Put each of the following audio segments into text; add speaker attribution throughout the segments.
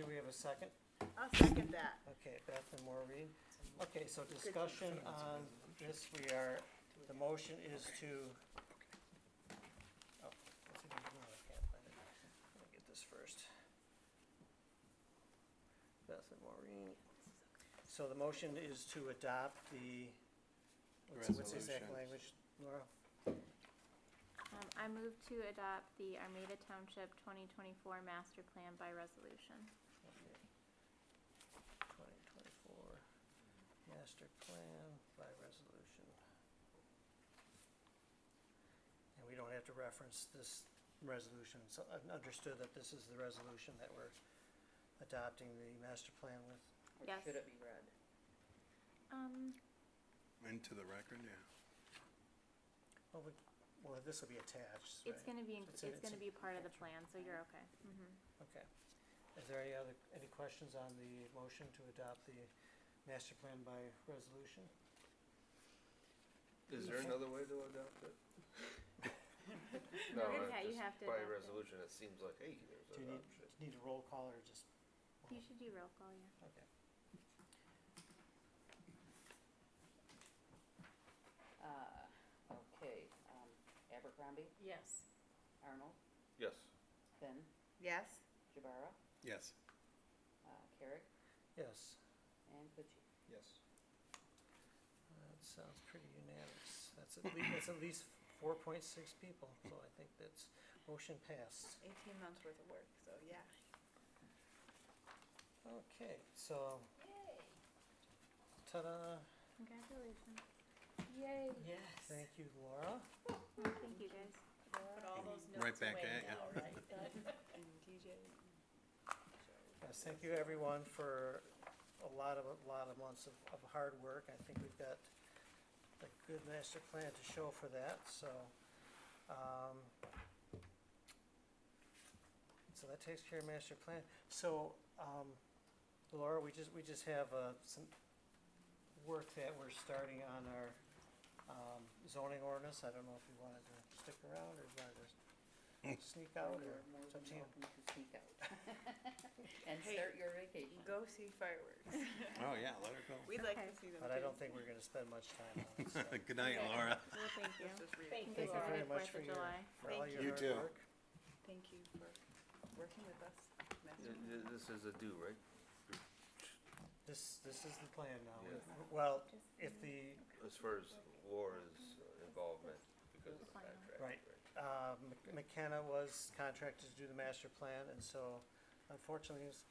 Speaker 1: a second?
Speaker 2: I'll second that.
Speaker 1: Okay, Beth and Maureen. Okay, so discussion on this, we are, the motion is to. Oh, what's it even doing? I can't find it. Let me get this first. Beth and Maureen. So the motion is to adopt the, what's, what's the exact
Speaker 3: Resolution.
Speaker 1: language, Laura?
Speaker 4: Um, I move to adopt the Armada Township twenty twenty-four master plan by resolution.
Speaker 1: Twenty twenty-four master plan by resolution. And we don't have to reference this resolution, so I've understood that this is the resolution that we're adopting the master plan with.
Speaker 5: Or
Speaker 4: Yes.
Speaker 5: Should it be read?
Speaker 4: Um,
Speaker 3: Into the record, yeah.
Speaker 1: Well, Oh, we, well, this will be attached,
Speaker 4: it's
Speaker 1: right?
Speaker 4: gonna be, in-
Speaker 1: It's in-
Speaker 4: it's
Speaker 1: it's
Speaker 4: gonna
Speaker 1: in
Speaker 4: be part of the plan, so you're okay. Mhm.
Speaker 1: Okay. Is there any other, any questions on the motion to adopt the master plan by resolution?
Speaker 6: Is there another way to adopt it?
Speaker 4: No,
Speaker 6: it
Speaker 4: yeah, you
Speaker 6: just
Speaker 4: have to
Speaker 6: By
Speaker 4: adopt it.
Speaker 6: resolution, it seems like, hey, there's
Speaker 1: Do you need,
Speaker 6: adoption.
Speaker 1: need a roll call or just?
Speaker 4: You should do roll call, yeah.
Speaker 1: Okay.
Speaker 5: Uh, okay, um, Abercrombie,
Speaker 2: Yes.
Speaker 5: Arnold,
Speaker 6: Yes,
Speaker 5: Finn,
Speaker 2: Yes?
Speaker 5: Jabara,
Speaker 3: Yes.
Speaker 5: uh, Carrick,
Speaker 1: Yes.
Speaker 5: and Pucci.
Speaker 6: yes.
Speaker 1: That sounds pretty unanimous. That's at least, that's at least four point six people, so I think that's, motion passed.
Speaker 2: Eighteen months worth of work, so yeah.
Speaker 1: Okay, so, ta-da,
Speaker 4: Congratulations.
Speaker 2: Yay. Yes.
Speaker 1: thank you Laura.
Speaker 4: Well, thank you guys.
Speaker 2: Put all those
Speaker 3: Right
Speaker 2: notes
Speaker 3: back
Speaker 2: away
Speaker 3: at ya.
Speaker 2: now, right? And TJ.
Speaker 1: Yes, thank you everyone for a lot of, a lot of months of, of hard work. I think we've got a good master plan to show for that, so, um, so that takes care of master plan. So, um, Laura, we just, we just have, uh, some work that we're starting on our, um, zoning ordinance. I don't know if you wanted to stick around or wanted to sneak out or
Speaker 5: You're more
Speaker 1: it's up to
Speaker 5: than
Speaker 1: you.
Speaker 5: welcome to sneak out. And
Speaker 2: Hey,
Speaker 5: start your vacation.
Speaker 2: Go see fireworks.
Speaker 3: Oh, yeah, let her go.
Speaker 2: We'd like
Speaker 4: Okay.
Speaker 2: to see them
Speaker 1: But I
Speaker 2: too.
Speaker 1: don't think we're gonna spend much time on it, so.
Speaker 3: Good night,
Speaker 2: Okay.
Speaker 3: Laura.
Speaker 4: Well, thank you.
Speaker 2: Let's just read it.
Speaker 4: You
Speaker 2: Thank
Speaker 4: guys
Speaker 2: you.
Speaker 4: have a
Speaker 1: very
Speaker 4: good
Speaker 1: much for
Speaker 4: Fourth of
Speaker 1: your-
Speaker 4: July.
Speaker 1: for all
Speaker 2: Thank
Speaker 1: your
Speaker 3: you. You
Speaker 1: hard
Speaker 3: too.
Speaker 1: work.
Speaker 2: Thank you for working with us. Master
Speaker 6: Th- th- This is a do, right?
Speaker 1: This, this is the plan now.
Speaker 6: Yeah.
Speaker 1: W- Well,
Speaker 4: Just
Speaker 1: if
Speaker 4: a minute.
Speaker 1: the,
Speaker 6: As far as Laura's uh, involvement because of the
Speaker 4: Final.
Speaker 6: contract, right?
Speaker 1: Right. uh, Mc- McKenna was contracted to do the master plan, and so unfortunately, it's-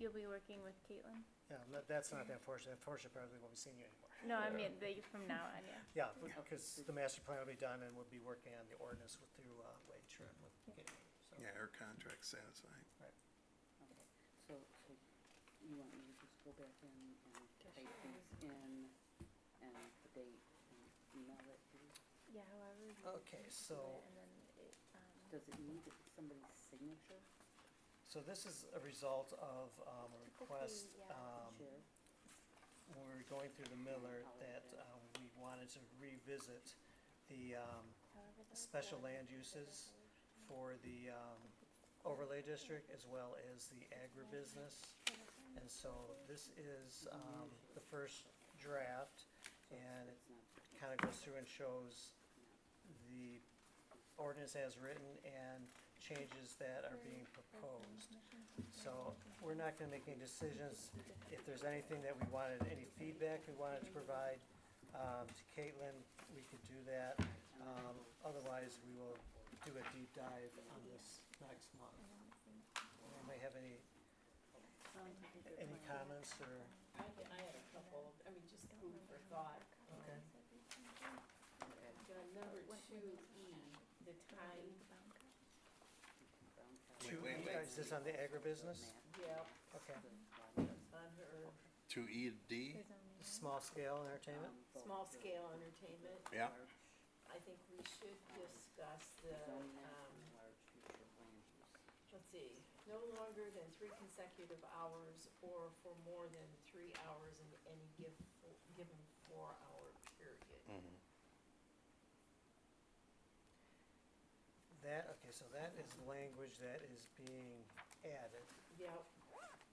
Speaker 4: You'll be working with Caitlin?
Speaker 1: yeah, no, that's not the unfortunate, unfortunate part, is we won't be seeing you anymore.
Speaker 4: No, I
Speaker 6: Yeah.
Speaker 4: mean, the, from now on, yeah.
Speaker 1: Yeah, because the master plan will be done, and we'll be working on the ordinance with, through, uh, Wade Trim with Gabe, so.
Speaker 3: Yeah, her contract's satisfying.
Speaker 5: Okay, so, so you want me to just go back in and type things in and the date and email it to you?
Speaker 4: Yeah, however. you
Speaker 1: Okay,
Speaker 4: do
Speaker 1: Oh, so-
Speaker 4: it, And then it, um,
Speaker 5: Does it need somebody's signature,
Speaker 1: So this is a result of, um, a request,
Speaker 4: Typically, yeah.
Speaker 1: um,
Speaker 5: chair?
Speaker 1: when we were going through the Miller, that,
Speaker 5: Yeah.
Speaker 1: um, we wanted to revisit the, um,
Speaker 4: however those
Speaker 1: special
Speaker 4: work,
Speaker 1: land
Speaker 4: the
Speaker 1: uses
Speaker 4: resolution.
Speaker 1: for the um, overlay district as well as the agribusiness. And so this is um, the first draft
Speaker 5: So it's-
Speaker 1: and
Speaker 5: it's not-
Speaker 1: kind of goes through and shows the ordinance as written and changes that are being proposed. So we're not gonna make any decisions. If there's anything that we wanted, any feedback we wanted to provide um, to Caitlin, we could do that. Um, Otherwise, we will do a deep dive on this next month. Anybody have any,
Speaker 5: Sounds like a good
Speaker 1: any
Speaker 5: plan.
Speaker 1: comments or,
Speaker 7: I, I had a couple, I mean, just food for thought.
Speaker 1: okay?
Speaker 7: The number two E, the time,
Speaker 5: Brown colour.
Speaker 1: Two,
Speaker 3: wait,
Speaker 1: E-
Speaker 3: wait.
Speaker 1: is this on the agribusiness?
Speaker 7: yeah,
Speaker 1: Okay.
Speaker 7: on her,
Speaker 3: To E D?
Speaker 1: Small scale entertainment?
Speaker 7: small scale entertainment.
Speaker 3: Yeah.
Speaker 7: I think we should discuss the, um, let's see, no longer than three consecutive hours or for more than three hours in any give, given four-hour period.
Speaker 1: That, okay, so that is language that is being added.
Speaker 7: Yep,